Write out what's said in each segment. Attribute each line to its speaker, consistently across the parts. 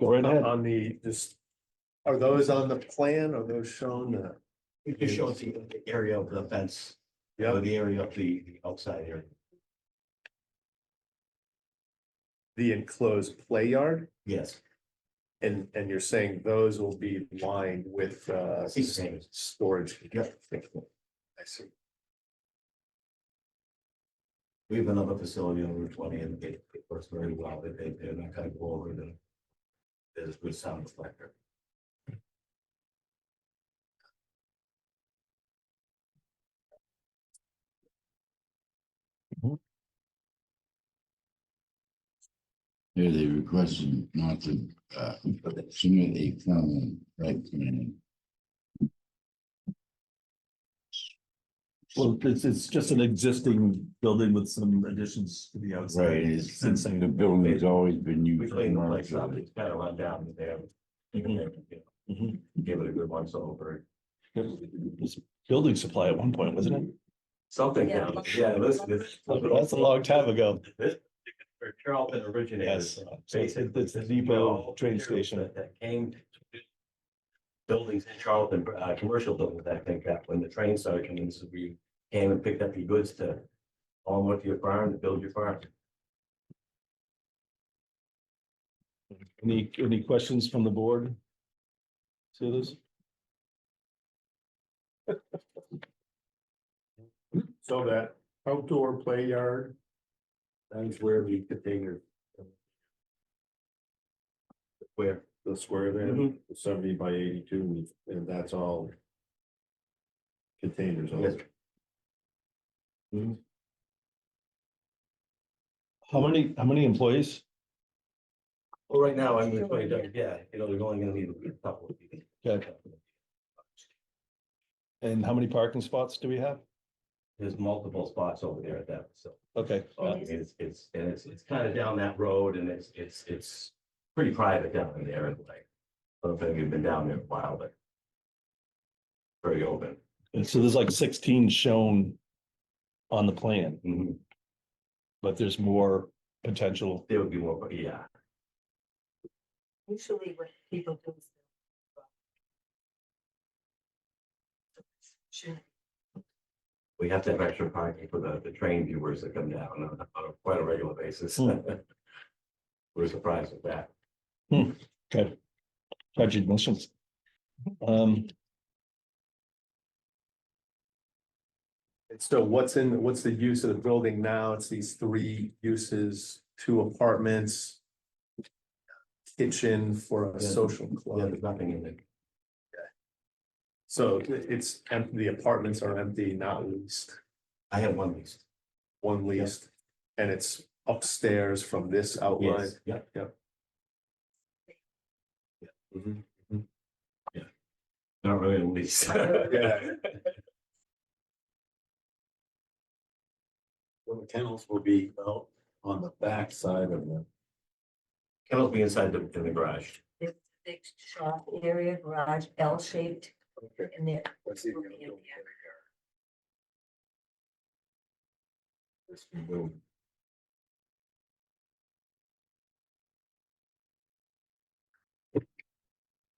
Speaker 1: Go right ahead.
Speaker 2: On the, this, are those on the plan? Are those shown? uh,
Speaker 3: It just shows the the area of the fence, or the area of the the outside area.
Speaker 2: The enclosed play yard?
Speaker 3: Yes,
Speaker 2: And, and you're saying those will be lined with, uh,
Speaker 3: Sea containers.
Speaker 2: storage?
Speaker 3: Yeah.
Speaker 2: I see.
Speaker 3: we have another facility on Route twenty and it it works very well. They- They, they're not gonna go over the. There's good sound reflector.
Speaker 4: Here they requested not to, uh, submit a common right plan.
Speaker 1: Well, it's, it's just an existing building with some additions to the outside.
Speaker 4: It's,
Speaker 1: Since I-
Speaker 4: the building's always been
Speaker 3: We
Speaker 4: used. for
Speaker 3: clean the place up,
Speaker 4: nonsense.
Speaker 3: it's kind of run down there.
Speaker 1: Mhm.
Speaker 3: Give it a good once over,
Speaker 1: It was Building supply at one point, wasn't it?
Speaker 3: something
Speaker 5: Yeah.
Speaker 3: down, yeah, listen, this.
Speaker 1: That's a long time ago.
Speaker 3: Where Charlton originated.
Speaker 1: Yes. It's- it's the depot train station.
Speaker 3: That- That came. to Buildings in Charlton, uh, commercial buildings, I think, that when the train started coming, so we came and picked up your goods to. On with your farm, to build your farm.
Speaker 1: Any, any questions from the board? See this?
Speaker 2: So that outdoor play yard,
Speaker 3: That's where we could take your. Where,
Speaker 2: the square there, seventy by eighty-two, and that's all containers on
Speaker 3: yes,
Speaker 2: it.
Speaker 1: How many, how many employees?
Speaker 3: well, right now, I'm gonna play, that, yeah, you know, they're only gonna need a couple of people.
Speaker 1: Okay. And how many parking spots do we have?
Speaker 3: There's multiple spots over there at that, so.
Speaker 1: Okay,
Speaker 3: Uh, It's, it's, and it's, it's kind of down that road and it's, it's, it's pretty private down in there and like. I don't think we've been down there a while, but. Very open.
Speaker 1: and so there's like sixteen shown on the plan,
Speaker 3: Mhm.
Speaker 1: but there's more potential.
Speaker 3: There would be more, but yeah,
Speaker 5: Usually what people do is. Sure.
Speaker 3: we have to have extra parking for the, the train viewers that come down on, a- on a quite a regular basis.
Speaker 1: Hmm.
Speaker 3: We're surprised at that.
Speaker 1: Okay. Tragic emotions. Um,
Speaker 2: And so what's in, what's the use of the building now? It's these three uses, two apartments. Kitchen for a
Speaker 3: Yeah.
Speaker 2: social
Speaker 3: Yeah,
Speaker 2: club.
Speaker 3: there's nothing in it.
Speaker 2: So it's, em- the apartments are empty, not leased,
Speaker 3: I have one lease.
Speaker 2: one leased. And it's upstairs from this
Speaker 3: Oh,
Speaker 2: outline.
Speaker 3: Yes, Yep, yep. Yeah. Mm-hmm.
Speaker 2: Mhm,
Speaker 3: Yeah. Not really a lease.
Speaker 2: Yeah.
Speaker 6: Well, the kennels will be out on the back side of the,
Speaker 3: Kennels be inside the, in the garage.
Speaker 5: There's a big shop area, garage, L-shaped
Speaker 6: okay.
Speaker 5: in there.
Speaker 6: Let's see.
Speaker 5: Will be in there.
Speaker 6: This new building.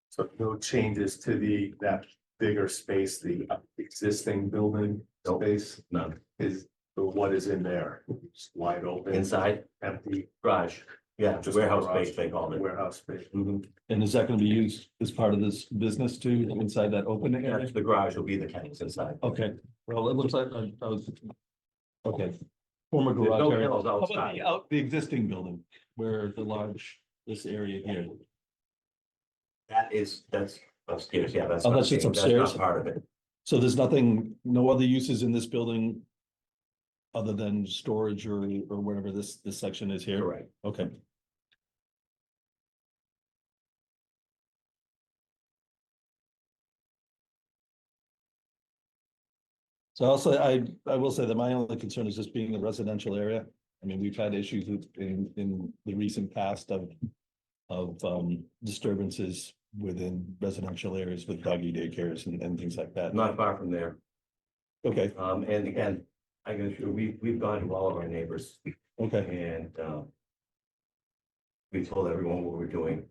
Speaker 2: So no changes to the, that bigger space, the existing building
Speaker 3: Nope.
Speaker 2: space
Speaker 3: None.
Speaker 2: is, but what is in there? Just Wide open,
Speaker 3: Inside,
Speaker 2: empty
Speaker 3: garage, yeah,
Speaker 2: Just
Speaker 3: warehouse
Speaker 2: garage.
Speaker 3: space, they call it.
Speaker 2: warehouse space.
Speaker 3: Mhm.
Speaker 1: and is that gonna be used as part of this business too, inside that open area?
Speaker 3: The garage will be the kennels inside.
Speaker 1: Okay, well, it looks like I I was. Okay. Former
Speaker 3: There's
Speaker 1: garage
Speaker 3: no
Speaker 1: area.
Speaker 3: kennels
Speaker 1: How about
Speaker 3: outside.
Speaker 1: the out, the existing building where the large, this area here?
Speaker 3: That is, that's upstairs, yeah, that's.
Speaker 1: Oh, that's just
Speaker 3: not
Speaker 1: upstairs?
Speaker 3: Part of it,
Speaker 1: So there's nothing, no other uses in this building? Other than storage or, or whatever this, this section is here?
Speaker 3: correct.
Speaker 1: Okay. So also, I, I will say that my only concern is just being a residential area. I mean, we've had issues with- in, in the recent past of, of, um, disturbances within residential areas with doggy daycares and, and things like that.
Speaker 3: Not far from there.
Speaker 1: Okay,
Speaker 3: Um, and again, I can assure, we, we've gone to all of our neighbors
Speaker 1: okay,
Speaker 3: and, um. We told everyone what we're doing.